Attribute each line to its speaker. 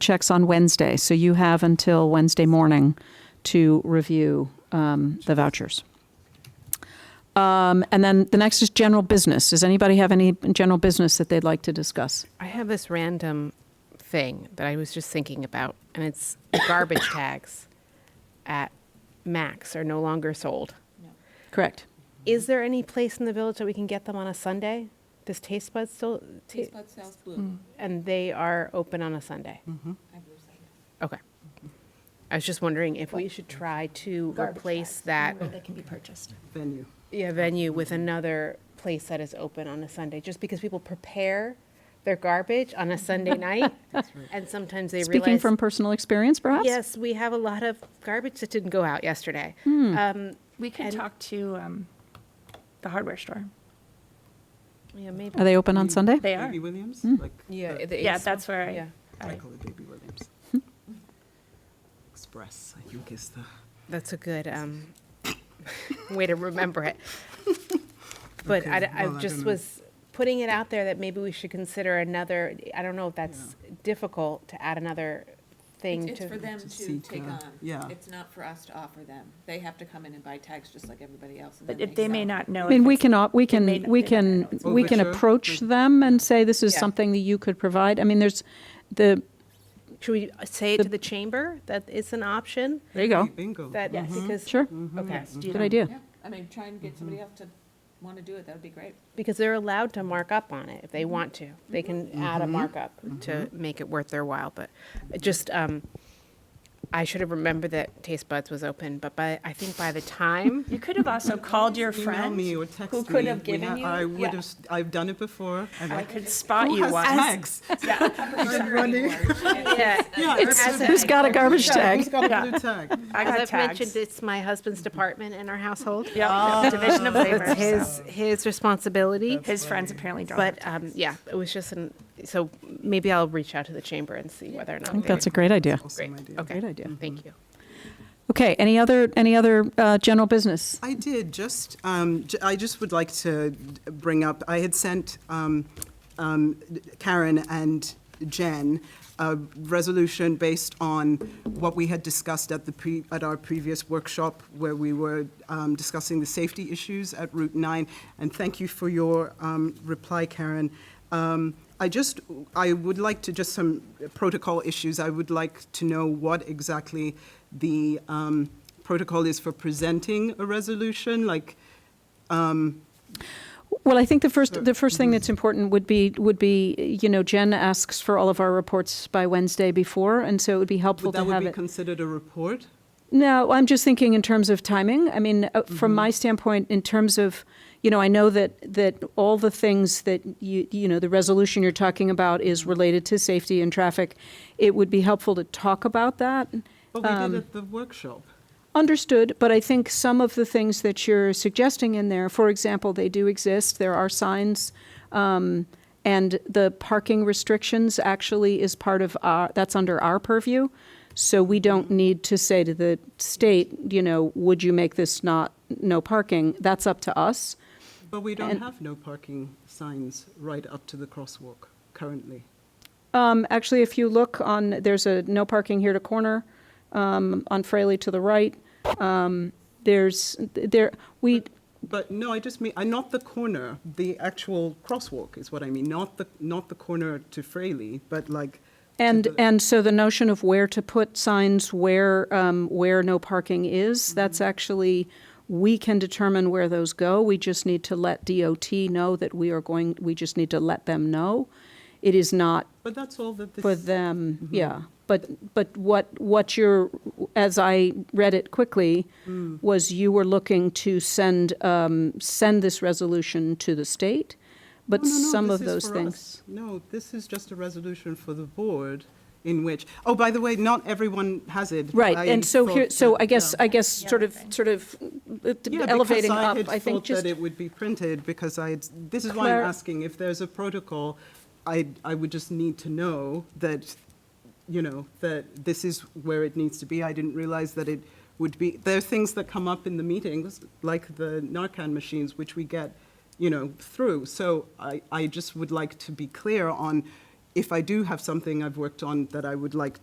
Speaker 1: checks on Wednesday, so you have until Wednesday morning to review um, the vouchers. Um, And then the next is general business. Does anybody have any general business that they'd like to discuss?
Speaker 2: I have this random thing that I was just thinking about, and it's garbage tags at Max are no longer sold.
Speaker 1: Correct.
Speaker 2: Is there any place in the village that we can get them on a Sunday? Does Taste Buds still?
Speaker 3: Taste Bud South Blue.
Speaker 2: And they are open on a Sunday.
Speaker 3: I believe so.
Speaker 2: Okay. I was just wondering if we should try to replace
Speaker 3: Mm-hmm.
Speaker 2: that
Speaker 4: That can be purchased.
Speaker 5: venue.
Speaker 2: yeah, venue with another place that is open on a Sunday, just because people prepare their garbage on a Sunday night, and sometimes they
Speaker 1: Speaking
Speaker 2: realize
Speaker 1: from personal experience, perhaps?
Speaker 2: Yes, we have a lot of garbage that didn't go out yesterday.
Speaker 1: Hmm.
Speaker 2: Um,
Speaker 4: We could
Speaker 2: And-
Speaker 4: talk to um, the hardware store.
Speaker 2: yeah, maybe.
Speaker 1: Are they open on Sunday?
Speaker 4: They are. Mm.
Speaker 5: Baby Williams, like
Speaker 2: Yeah,
Speaker 5: the-
Speaker 2: it-
Speaker 4: Yeah,
Speaker 2: it's-
Speaker 4: that's where
Speaker 2: yeah.
Speaker 4: I-
Speaker 5: I
Speaker 4: I,
Speaker 5: call it Baby Williams. Express, I think is the.
Speaker 2: that's a good um, way to remember it. But I,
Speaker 5: Okay,
Speaker 2: d- I
Speaker 5: well, I
Speaker 2: just
Speaker 5: don't know.
Speaker 2: was putting it out there that maybe we should consider another. I don't know if that's difficult to add another thing
Speaker 3: It's
Speaker 2: to.
Speaker 3: for them
Speaker 5: To
Speaker 3: to
Speaker 5: seek,
Speaker 3: take
Speaker 5: uh,
Speaker 3: on.
Speaker 5: yeah.
Speaker 3: It's not for us to offer them. They have to come in and buy tags just like everybody else. and
Speaker 4: but
Speaker 3: then
Speaker 4: if they may
Speaker 3: sell.
Speaker 4: not know.
Speaker 1: I mean,
Speaker 4: if
Speaker 1: we
Speaker 4: it's-
Speaker 1: can, op- we
Speaker 4: may
Speaker 1: can,
Speaker 4: not
Speaker 1: we
Speaker 4: be that
Speaker 1: can,
Speaker 4: at
Speaker 5: all.
Speaker 1: we can
Speaker 5: Overture.
Speaker 1: approach them and say, this is
Speaker 3: Yeah.
Speaker 1: something that you could provide. I mean, there's the.
Speaker 2: should we say it to the chamber that it's an option?
Speaker 1: There you
Speaker 4: Oh.
Speaker 1: go.
Speaker 5: Bingo.
Speaker 2: That
Speaker 4: Yes. Mm-hmm.
Speaker 2: because
Speaker 1: Mm-hmm. Sure,
Speaker 2: okay.
Speaker 4: Yes, do
Speaker 1: good
Speaker 4: them.
Speaker 1: idea.
Speaker 3: Yeah, I mean, try and get somebody else to want to do it. That would be great.
Speaker 2: because they're allowed to mark up on it if they want to. They can add a markup to make it worth their while. But just, um, I should have remembered that Taste Buds was open, but by I think by the time
Speaker 4: You could have also called your
Speaker 5: Email
Speaker 4: friend
Speaker 5: me or
Speaker 4: who
Speaker 5: text
Speaker 4: could
Speaker 5: me.
Speaker 4: have
Speaker 5: We
Speaker 4: given
Speaker 5: ha-
Speaker 4: you.
Speaker 5: I would
Speaker 4: yeah.
Speaker 5: have, s- I've done it before. I'm
Speaker 4: I
Speaker 5: like,
Speaker 4: could spot
Speaker 5: who
Speaker 4: you
Speaker 5: has
Speaker 4: once.
Speaker 5: tags?
Speaker 2: yeah,
Speaker 5: Yeah,
Speaker 2: It's-
Speaker 5: it's-
Speaker 1: Who's got a garbage
Speaker 5: Who's
Speaker 1: tag?
Speaker 5: got
Speaker 4: Yeah.
Speaker 5: a blue tag?
Speaker 4: I
Speaker 2: as
Speaker 4: got
Speaker 2: I've mentioned,
Speaker 4: tags.
Speaker 2: it's my husband's department in our household.
Speaker 4: Yeah, division of labor.
Speaker 2: It's his his responsibility.
Speaker 4: His friends apparently don't.
Speaker 2: but um, yeah, it was just an so maybe I'll reach out to the chamber and see whether or not
Speaker 1: I think
Speaker 2: they-
Speaker 1: that's a great idea.
Speaker 5: Awesome
Speaker 2: great.
Speaker 5: idea.
Speaker 2: Okay,
Speaker 1: Great idea.
Speaker 2: Thank you.
Speaker 1: Okay, any other, any other uh, general business?
Speaker 5: I did, just, um, j- I just would like to bring up, I had sent um, um, Karen and Jen a resolution based on what we had discussed at the, pre- at our previous workshop, where we were um, discussing the safety issues at Route 9, and thank you for your um, reply, Karen. Um, I just, I would like to, just some protocol issues, I would like to know what exactly the um, protocol is for presenting a resolution, like,
Speaker 1: Well, I think the first, the first thing that's
Speaker 5: Mm-hmm.
Speaker 1: important would be, would be, you know, Jen asks for all of our reports by Wednesday before, and so it would be helpful
Speaker 5: would
Speaker 1: to
Speaker 5: that would
Speaker 1: have
Speaker 5: be
Speaker 1: it.
Speaker 5: considered a report?
Speaker 1: No, I'm just thinking in terms of timing. I mean, uh,
Speaker 5: Mm-hmm.
Speaker 1: from my standpoint, in terms of, you know, I know that, that all the things that you, you know, the resolution you're talking about is
Speaker 5: Mm-hmm.
Speaker 1: related to safety and traffic. It would be helpful to talk about that.
Speaker 5: Well, we
Speaker 1: Um,
Speaker 5: did at the workshop.
Speaker 1: Understood, but I think some of the things that you're suggesting in there, for example, they do exist, there are signs, um, and the parking restrictions actually is part of our, that's under our purview. So we don't need to say to the state, you know, would you make this not, no parking? That's up to us.
Speaker 5: But we don't
Speaker 1: And-
Speaker 5: have no parking signs right up to the crosswalk currently.
Speaker 1: Um, actually, if you look on, there's a no parking here to corner, um, on Fraley to the right. Um, there's, there, we,
Speaker 5: But no, I just mean, uh, not the corner, the actual crosswalk is what I mean, not the, not the corner to Fraley, but like. to
Speaker 1: And,
Speaker 5: the-
Speaker 1: and so the notion of where to put signs where, um, where no parking
Speaker 5: Mm-hmm.
Speaker 1: is, that's actually, we can determine where those go. We just need to let DOT know that we are going, we just need to let them know. It is not
Speaker 5: But that's all that this. Mm-hmm.
Speaker 1: for them, yeah. But, but what, what you're, as I read it quickly,
Speaker 5: Mm.
Speaker 1: was you were looking to send, um, send this resolution to the state, but
Speaker 5: No, no, no,
Speaker 1: some
Speaker 5: this
Speaker 1: of
Speaker 5: is
Speaker 1: those
Speaker 5: for
Speaker 1: things.
Speaker 5: us. No, this is just a resolution for the board in which, oh, by the way, not everyone has it.
Speaker 1: Right,
Speaker 5: I
Speaker 1: and so here,
Speaker 5: thought
Speaker 1: so
Speaker 5: that-
Speaker 1: I guess,
Speaker 5: yeah.
Speaker 1: I guess, sort of, sort of uh,
Speaker 5: Yeah,
Speaker 1: elevating
Speaker 5: because
Speaker 1: up,
Speaker 5: had
Speaker 1: I think
Speaker 5: thought
Speaker 1: just,
Speaker 5: that it would be printed because I had, this is why I'm
Speaker 1: Clar-
Speaker 5: asking if there's a protocol. I I would just need to know that, you know, that this is where it needs to be. I didn't realize that it would be. There are things that come up in the meetings, like the Narcan machines, which we get, you know, through. So I I just would like to be clear on if I do have something I've worked on that I would like